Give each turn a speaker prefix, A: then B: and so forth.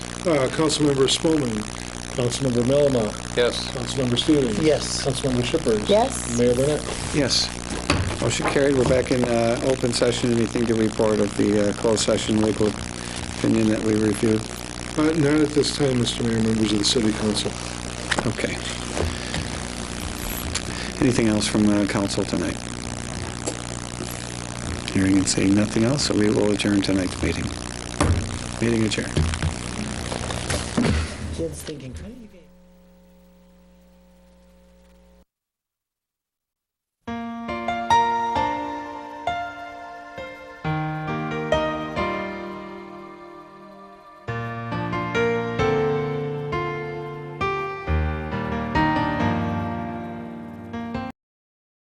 A: Uh, Councilmember Spelman. Councilmember Melama.
B: Yes.
A: Councilmember Stevens.
C: Yes.
A: Councilmember Shippers.
C: Yes.
A: Mayor Burnett.
D: Yes. Motion carried. We're back in uh, open session. Anything to report of the uh, closed session legal opinion that we reviewed?
A: Uh, Not at this time, Mr. Mayor, members of the city council.
D: Okay. Anything else from uh, council tonight? Hearing and seeing nothing else, so we will adjourn tonight's meeting. Meeting adjourned.
C: Jim's thinking, "Why do you guys